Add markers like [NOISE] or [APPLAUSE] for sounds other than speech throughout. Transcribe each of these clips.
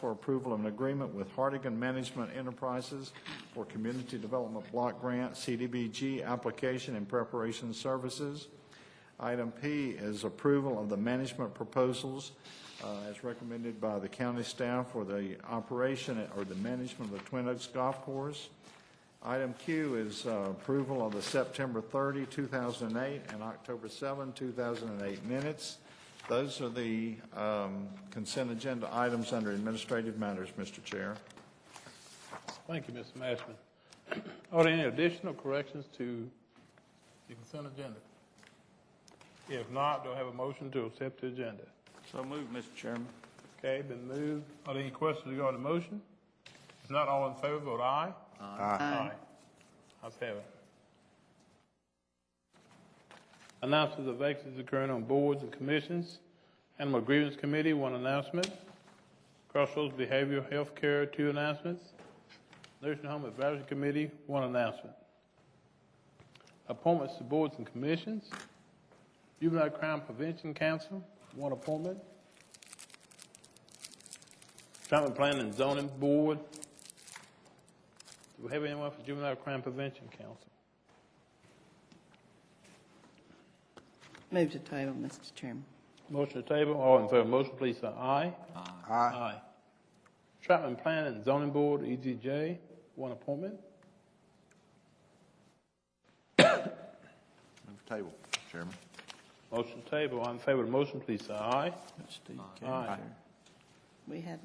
for approval of an agreement with Hardigan Management Enterprises for Community Development Block Grant, CDBG, application and preparation services. Item P is approval of the management proposals uh, as recommended by the county staff for the operation or the management of the Twin Oaks Golf Course. Item Q is uh, approval of the September 30, 2008, and October 7, 2008 minutes. Those are the um, consent agenda items under administrative matters, Mr. Chair. Thank you, Mr. Mashman. [CLEARS THROAT] Are there any additional corrections to the consent agenda? If not, do I have a motion to accept the agenda? So moved, Mr. Chairman. Okay, been moved. Are there any questions regarding the motion? If not, all in favor, vote aye. Aye. Ayes have it. Announcements of vacancies occurring on boards and commissions. Animal Grievance Committee, one announcement. Crossroads Behavioral Health Care, two announcements. Nursing Home Advisory Committee, one announcement. Appointments to boards and commissions. Juvenile Crime Prevention Council, one appointment. Traffic Planning and Zoning Board. Do we have anyone for Juvenile Crime Prevention Council? Move to table, Mr. Chairman. Motion to table, all in favor of the motion, please say aye. Aye. Aye. Traffic and Planning and Zoning Board, EZJ, one appointment. Move the table, Chairman. Motion to table, all in favor of the motion, please say aye. Aye. We had,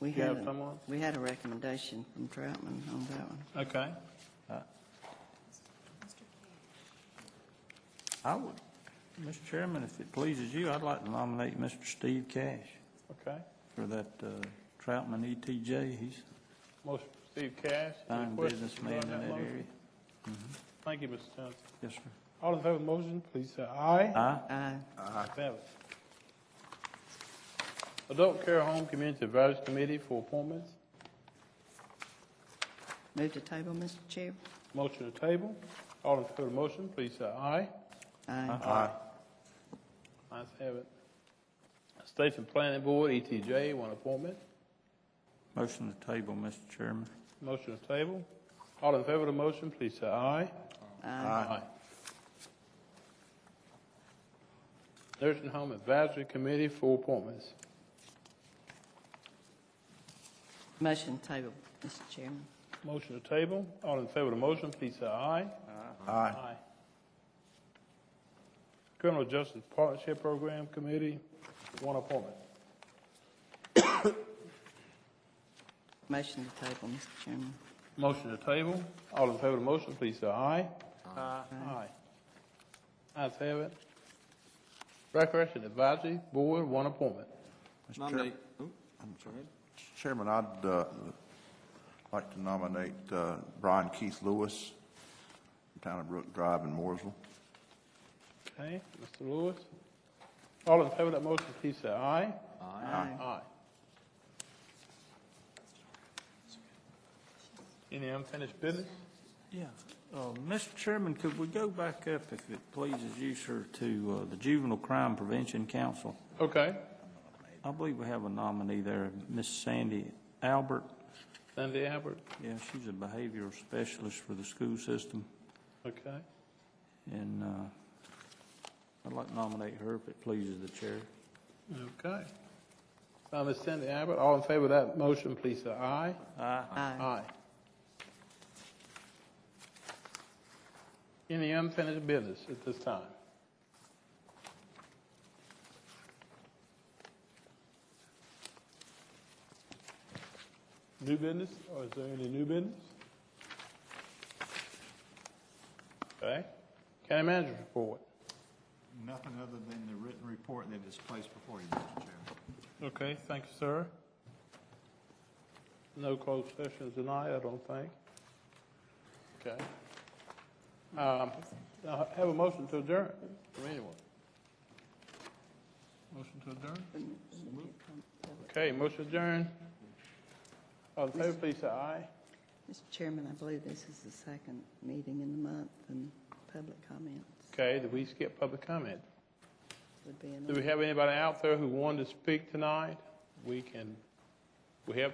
we You had, have a- someone? we had a recommendation from Troutman on that one. Okay. I would, Mr. Chairman, if it pleases you, I'd like to nominate Mr. Steve Cash Okay. for that uh, Troutman ETJ. He's Motion for Steve Cash. a Any fine questions businessman in regarding that motion? area. Thank you, Mr. Johnson. Yes, sir. All in favor of the motion, please say aye. Aye. Aye. Ayes have it. Adult Care Home Community Advisory Committee for appointments. Move to table, Mr. Chair. Motion to table. All in favor of the motion, please say aye. Aye. Aye. Ayes have it. States and Planning Board, ETJ, one appointment. Motion to table, Mr. Chairman. Motion to table. All in favor of the motion, please say aye. Aye. Aye. Nursing Home Advisory Committee, four appointments. Motion to table, Mr. Chairman. Motion to table. All in favor of the motion, please say aye. Aye. Aye. Criminal Justice Partnership Program Committee, one appointment. Motion to table, Mr. Chairman. Motion to table. All in favor of the motion, please say aye. Aye. Ayes have it. Recreation Advisory Board, one appointment. Mr. Chair- Oop, I'm sorry. Mr. Chairman, I'd uh, like to nominate uh, Brian Keith Lewis, Town of Brook Drive in Mooresville. Okay, Mr. Lewis. All in favor of that motion, please say aye. Aye. Aye. Any unfinished business? Yeah. Uh, Mr. Chairman, could we go back up, if it pleases you, sir, to uh, the Juvenile Crime Prevention Council? Okay, I believe we have a nominee there, Miss Sandy Albert. Sandy Albert, Yeah, she's a behavioral specialist for the school system, okay. and uh, I'd like to nominate her if it pleases the chair. Okay. Uh, Ms. Cindy Abbott, all in favor of that motion, please say aye. Aye. Aye. Any unfinished business at this time? New business, or is there any new business? Okay. County manager's report. Nothing other than the written report that is placed before you, Mr. Chairman. Okay, thank you, sir. No closed sessions tonight, I don't think. Okay. Um, I Have a motion to adjourn from anyone. Motion to adjourn? Okay, motion adjourned. All in favor, please say aye. Mr. Chairman, I believe this is the second meeting in the month, and public comments Okay, did we skip public comment? would be Do we in. have anybody out there who wanted to speak tonight? We can We have